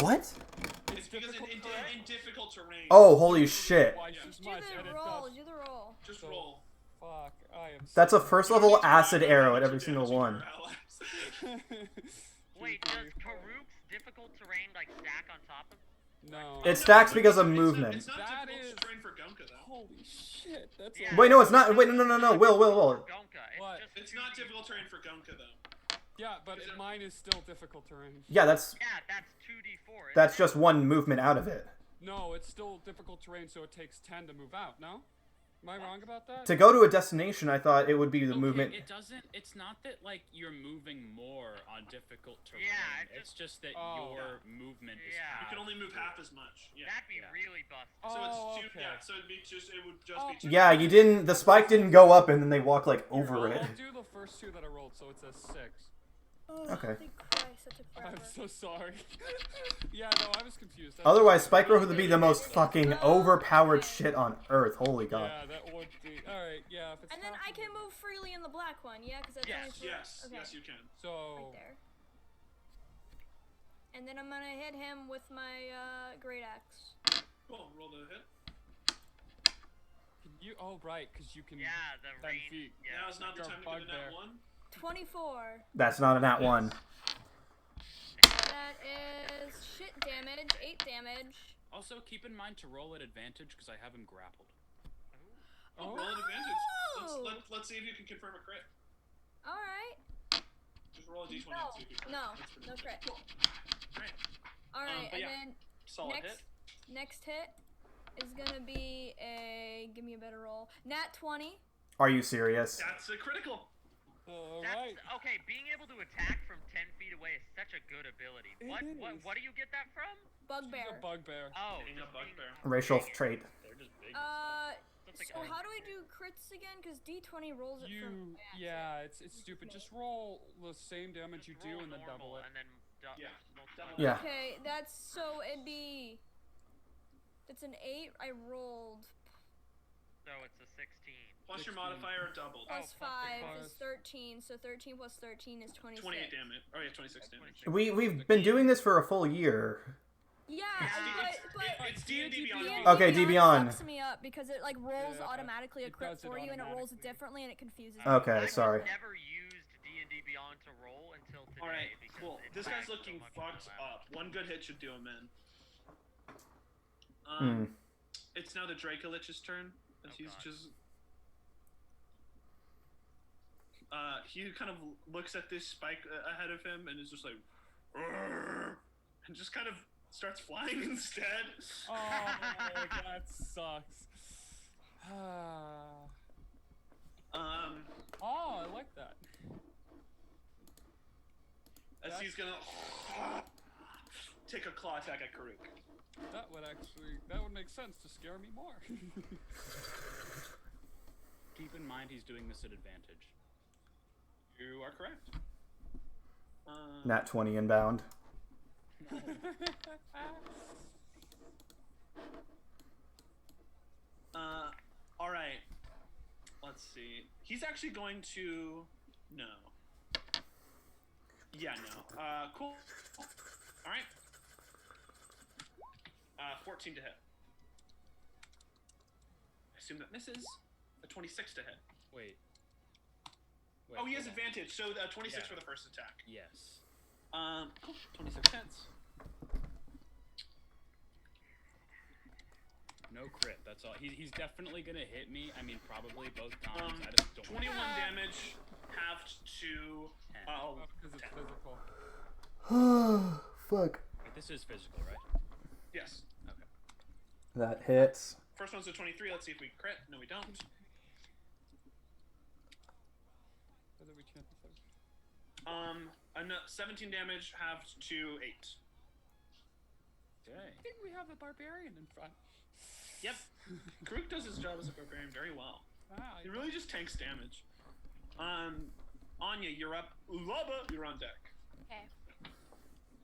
What? It's because it, it, in difficult terrain. Oh, holy shit. Twice as Do much and the it roll. does. Do the roll. Just roll. Fuck, I am. That's a so- first level acid arrow at every single one. Wait, does Karuk's difficult terrain like stack on top of? no. It stacks because of It's not- movement. It's not, That difficult is- terrain for Gunka though. Holy shit, that's. Yeah. A... Wait, no, it's not. Wait, no, no, no, no. Will, Will, Will. Gonka. It's What? just It's two not D- difficult terrain for Gunka though. Yeah, but it, mine is still difficult terrain. Yeah, that's Yeah, that's two D four. that's just one movement out of it. No, it's still difficult terrain, so it takes ten to move out. No, am I wrong about that? To go to a destination, I thought it would be the Okay, movement. It doesn't. It's not that like you're moving more on difficult terrain. Yeah, it it's just that Oh. your movement is. Yeah. You You halved. can only move half as much. Yeah. That'd be Yeah. really busted. Oh, So it's two. okay. Yeah. So it'd be just. It would just Oh. be two. Yeah, you didn't. The spike didn't go up, and then they walk like over I'll it. do the first two that I rolled, so it's a six. Oh, Okay. holy Christ, that took I'm forever. so sorry. yeah, no, I was confused. That's- Otherwise, spike growth would be the most fucking overpowered shit on earth. Holy god. Yeah, that would be. All right, yeah. If it's And then not- I can move freely in the black one, yeah? Because that's only Yes. for- Yes. okay. Yes, you can. So Right there. And then I'm gonna hit him with my uh, great axe. Cool. Roll the hit. can you. Oh right, because you can. Yeah, the Ten range. feet. Now Yeah. is not the Got time to bug give it that there. one. 24. That's not an at one. That is shit damage, 8 damage. Also, keep in mind to roll at advantage because I have him grappled. Oh, Oh. roll an advantage. Let's, Oh. let, let's see if you can confirm a crit. Alright. Just roll a d20 and see if you can. No, That's pretty no good. crit. Cool. Alright. Um, Alright, but and yeah, then Solid next hit. next hit is gonna be a. Give me a better roll. Nat 20. Are you serious? That's a critical. All That's right. okay. Being able to attack from ten feet away is such a good ability. It What? What? is. What do you get that from? She's Bugbear. a bugbear. Oh, Being a just being- bugbear. Racial Dang it. trait. They're just big. Uh, That's like so a- how do we do crits again? Because D20 rolls it from. You. my axe. Yeah, it's it's stupid. Just roll the same damage Just you roll do and then normal double it. And then du- Yeah, multiply double by it. Yeah. Okay, that's so it'd be. It's an eight. I rolled So it's a 16. Plus your 16. modifier doubled. Oh, plus fuck, five because- is thirteen. So thirteen plus thirteen is twenty-six. 28 damage. Oh yeah, 26 damage. We we've been doing this for a full year. Yeah, It's- but but. It's D&D Beyond. D&D Okay, D Beyond. fucks me up because it like rolls Yeah, automatically a it crit does it for you and it rolls it automatically. differently and it confuses me. Okay, I've sorry. Just never used D and D Beyond to roll until today. All right, because cool. it This lags guy's so looking much fucked overlap. up. One good hit should do him in. Hmm. Um, It's now the Dracolich's turn, as Oh, he's God. just. Uh, he kind of looks at this spike uh, ahead of him and is just like, "Arrgh," and just kind of starts flying instead. Oh, that sucks. Ah. Um, oh, I like that. as he's gonna take a claw attack at Karuk. That would actually that would make sense to scare me more. Keep in mind he's doing this at advantage. You are correct. Um, Nat twenty inbound. Uh, all right. Let's see. He's actually going to no. Yeah, no. Uh, cool. All right. Uh, 14 to hit. I assume that misses. A 26 to hit. Wait. Wait, Oh, he has hold on. advantage. So uh, 26 Yeah. for the first attack. Yes. Um, cool. 26 hits. No crit. That's all. He, he's definitely gonna hit me. I mean, probably both times. Um, I just don't. 21 damage, halved to. Uh, Because it's physical. Fuck. But this is physical, right? yes. That hits. First one's a 23. Let's see if we crit. No, we don't. Whether we chant the same. Um, an- 17 damage halved to 8. Okay. I think we have a barbarian in front. Yep. Karuk does his job as a barbarian very well. Ah, He really just tanks damage. Um, Anya, you're up. Ulaba, you're on deck. Okay.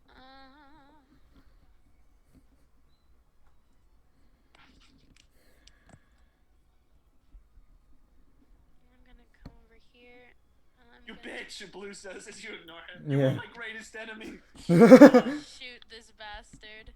Uh, I'm gonna come over here. and I'm You gonna- bitch! which Blue says as you ignore him. Yeah. My greatest enemy. Shoot this bastard.